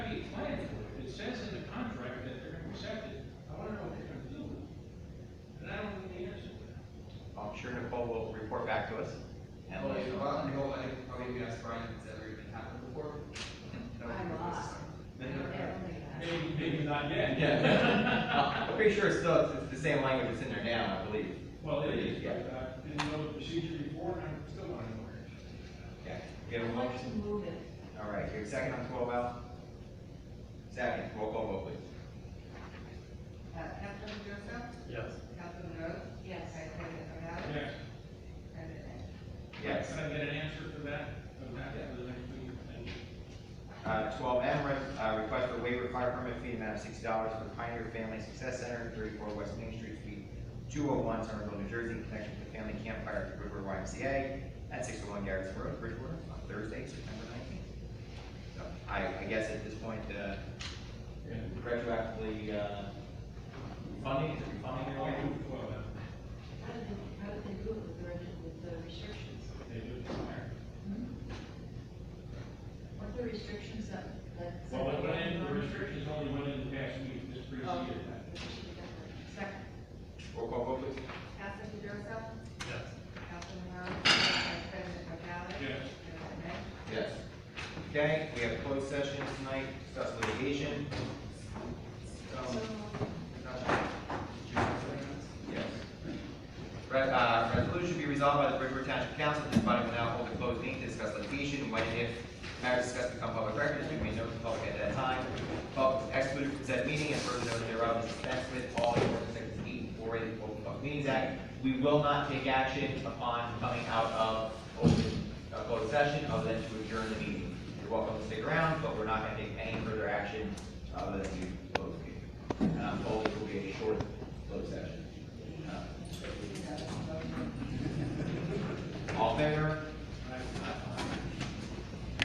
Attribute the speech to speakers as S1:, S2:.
S1: not yet.
S2: Yeah. I'm pretty sure it's still, it's the same language that's in there now, I believe.
S1: Well, it is,
S2: Yeah,
S1: but I didn't know the procedure before, and I'm still not aware.
S2: yeah. You have a
S3: I'd
S2: motion?
S3: like to move it.
S2: All right, you have a second on twelve L? Second, roll call vote, please.
S4: Uh, Councilman Joseph,
S5: Yes.
S4: Councilman Rhodes,
S3: Yes.
S4: Vice President Morales,
S1: Yes.
S4: President Lang.
S2: Yes.
S1: Can I get an answer for that? Or not, for the next meeting? Thank you.
S2: Uh, twelve M, re- uh, request for waiver of fire permit fee in the amount of sixty dollars for Pioneer Family Success Center, thirty-four West Main Street, Suite two oh one, Somerville, New Jersey, in connection with the Family Campfire at the River YMCA at six oh one Garrett's Road, Bridgewater, on Thursday, September nineteenth. So, I, I guess at this point, uh, retroactively, uh, funding, is it refunding
S1: I'll
S2: or?
S1: move twelve then.
S3: How did they, how did they do it with the, reg- with the restrictions?
S1: They do it from there.
S3: What are the restrictions that, that?
S1: Well, what went in, the restrictions only went in the past week, this
S3: Oh,
S1: preceded that.
S3: we should have done that.
S4: Second,
S2: Roll call vote, please.
S4: Councilman Joseph,
S5: Yes.
S4: Councilman Rhodes, Vice President Morales,
S1: Yes.
S4: President Lang.
S2: Yes. Okay, we have closed sessions tonight, discuss litigation. Um, Yes. Re- uh, Resolution be resolved by the Bridgewater Township Council, this body will now hold a closed meeting to discuss litigation, when and if matters discussed become public records, we may notify the public at that time. Public is excluded from said meeting, and further notice thereof is dispensed with all the ordinance sections eight four eight of the Open Public Meetings Act. We will not take action upon coming out of open, uh, closed session, other than to adjourn the meeting. You're welcome to stick around, but we're not gonna take any further action, other than to close the meeting. And I'm told it will be a short closed session. Uh, All in favor?